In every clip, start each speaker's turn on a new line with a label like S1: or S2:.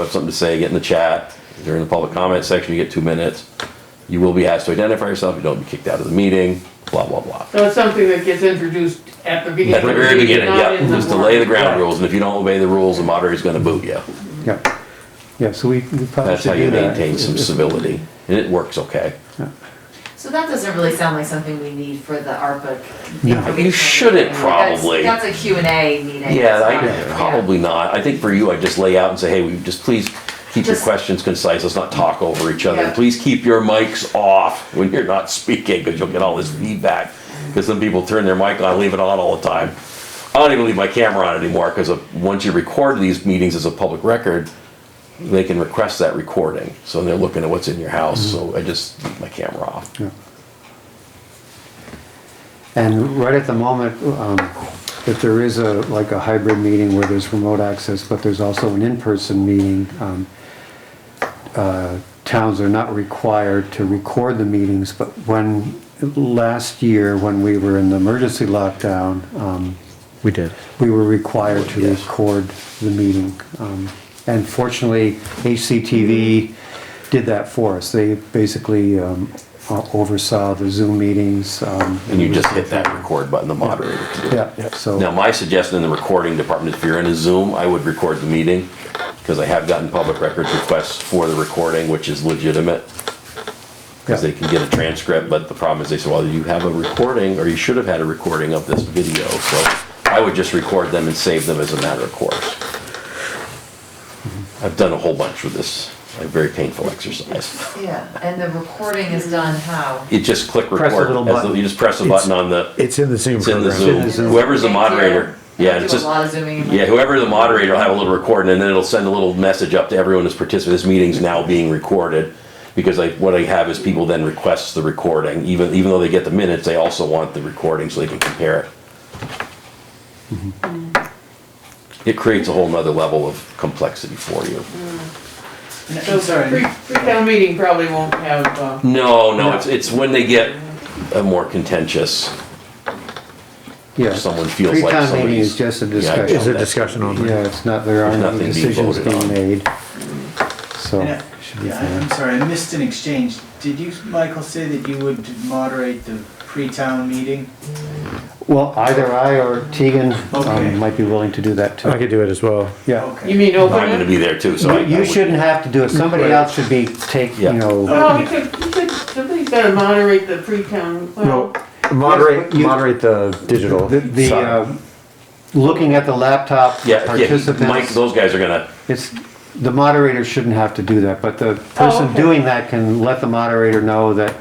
S1: have something to say, get in the chat. During the public comment section, you get two minutes. You will be asked to identify yourself, you don't be kicked out of the meeting, blah, blah, blah.
S2: So it's something that gets introduced at the beginning.
S1: At the very beginning,
S2: not
S1: yeah,
S2: in the
S1: just to lay the
S2: warrant.
S1: ground rules, and if you don't obey the rules, the moderator's gonna boot you.
S3: Yeah, yeah, so we we probably
S1: That's how
S3: should
S1: you
S3: do that.
S1: maintain some civility, and it works okay.
S4: So that doesn't really sound like something we need for the ARPA.
S3: No.
S4: information.
S1: You shouldn't
S4: That's-
S1: probably.
S4: That's a Q and A meeting.
S1: Yeah,
S4: It's not-
S1: I, probably not. I think for you, I'd just lay out and say, hey, we just please keep your
S4: Just-
S1: questions concise, let's not talk over each other.
S4: Yeah.
S1: Please keep your mics off when you're not speaking, because you'll get all this feedback. Because some people turn their mic on, I leave it on all the time. I don't even leave my camera on anymore, because once you record these meetings as a public record, they can request that recording, so they're looking at what's in your house, so I just leave my camera off.
S3: Yeah. And right at the moment, um, if there is a, like a hybrid meeting where there's remote access, but there's also an in-person meeting, um, uh, towns are not required to record the meetings, but when, last year, when we were in the emergency lockdown, um,
S5: We did.
S3: we were required to
S1: Yes.
S3: record the meeting. Um, And fortunately, HCTV did that for us. They basically um, o- oversaw the Zoom meetings. um,
S1: And you just hit that record button, the moderator can do it.
S3: Yeah,
S1: Now,
S3: so,
S1: my suggestion in the recording department, if you're in a Zoom, I would record the meeting, because I have gotten public records requests for the recording, which is legitimate, because they
S3: yeah,
S1: can get a transcript, but the problem is they say, well, you have a recording, or you should have had a recording of this video, so I would just record them and save them as a matter of course. I've done a whole bunch with this, a very painful exercise.
S4: Yeah, and the recording is done how?
S1: You just click record.
S3: Press a little
S1: as though-
S3: button.
S1: You just press a
S5: It's-
S1: button on the,
S5: It's in the Zoom
S1: it's in the
S5: program.
S1: Zoom,
S3: Zoom.
S1: whoever's the
S4: Thank you.
S1: moderator,
S4: I
S1: yeah, it's
S4: do
S1: just.
S4: a lot of zooming. in.
S1: Yeah, whoever the moderator will have a little recording, and then it'll send a little message up to everyone who's participating. This meeting's now being recorded. Because I, what I have is people then request the recording, even, even though they get the minutes, they also want the recording so they can compare it. It creates a whole nother level of complexity for you.
S2: So pre, pre-town meeting probably won't have, uh,
S1: No, no, it's, it's when they get uh, more contentious,
S3: yeah.
S1: someone feels like
S3: Pre-town meeting
S1: somebody's-
S3: is just a
S1: Yeah, I
S3: discussion.
S1: know
S5: Is a
S1: that.
S5: discussion on
S3: Yeah, it's not, there aren't
S1: There's
S3: any
S1: nothing being
S3: decisions
S1: voted
S3: being
S1: on.
S3: made. So,
S6: Yeah,
S3: should be
S6: yeah, I'm
S3: fine.
S6: sorry, I missed an exchange. Did you, Michael, say that you would moderate the pre-town meeting?
S3: Well, either I or Tegan um,
S6: Okay.
S3: might be willing to do that
S5: I
S3: too.
S5: could do it as well.
S3: Yeah.
S2: you
S6: Okay.
S2: mean
S1: I'm
S2: open
S1: gonna
S2: it?
S1: be there too, so. I-
S3: You-
S1: I
S3: You
S1: would-
S3: shouldn't have to do it. Somebody else should be take,
S1: Yeah.
S3: you know.
S2: Well, we could, we could, somebody's gotta moderate the pre-town, well,
S5: No, moderate,
S3: but you-
S5: moderate the
S1: Oh,
S5: digital.
S3: The, the,
S5: side.
S3: uh, looking at the laptop
S1: Yeah, yeah, Mike,
S3: participants,
S1: those guys are gonna,
S3: it's, the moderator shouldn't have to do that, but the
S6: Oh,
S3: person
S2: okay.
S3: doing that can let the moderator know that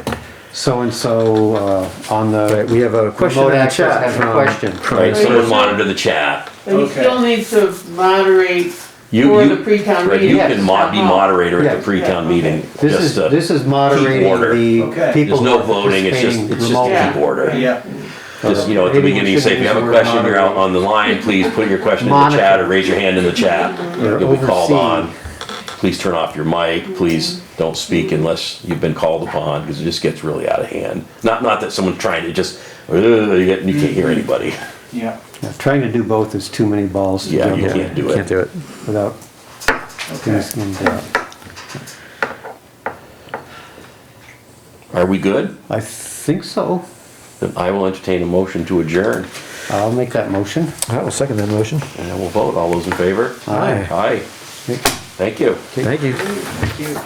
S3: so-and-so, uh, on
S5: Right,
S3: the
S5: we have a question in
S3: remote
S5: the
S3: access
S5: chat. Um,
S3: has a
S5: from-
S3: question.
S1: right, someone
S2: so-
S1: monitor the chat.
S2: and you
S6: Okay.
S2: still need to moderate
S1: You-
S2: for
S1: you-
S2: the pre-town
S1: Right,
S2: meeting.
S1: you can mod, be
S2: Uh-huh.
S1: moderator at the
S3: Yes.
S1: pre-town
S2: Yeah, okay.
S1: meeting.
S3: This
S1: just
S3: is,
S1: to-
S3: this is moderating
S1: order.
S3: the
S6: Okay.
S3: people
S1: There's
S3: who
S1: no
S3: are
S1: voting, it's just,
S3: participating
S1: it's just a
S3: remotely.
S1: keep order.
S6: Yeah,
S1: Just, you know, at the
S3: Maybe we
S1: beginning, you say, if you have
S3: shouldn't
S1: a
S3: use the word
S1: question, you're out
S3: moderator.
S1: on the line, please put your question in the chat or raise your hand in the chat.
S3: Or
S1: You'll be called
S3: overseeing.
S1: on. Please turn off your mic, please don't speak unless you've been called upon, because it just gets really out of hand. Not, not that someone's trying to just, "Ugh," you get- you can't hear
S3: Mm-hmm.
S1: anybody.
S6: yeah,
S3: Yeah, Trying to do both is too many balls to
S1: Yeah, you
S3: juggle
S1: can't do
S5: Can't
S1: it.
S5: do it.
S3: without
S6: okay.
S3: things being done.
S1: Are we good?
S3: I think so.
S1: Then I will entertain a motion to adjourn,
S3: I'll make that motion.
S5: I will second that motion.
S1: and then we'll vote. All those in favor?
S3: Aye.
S1: Aye. Thank you.
S5: Thank you.
S6: Thank you.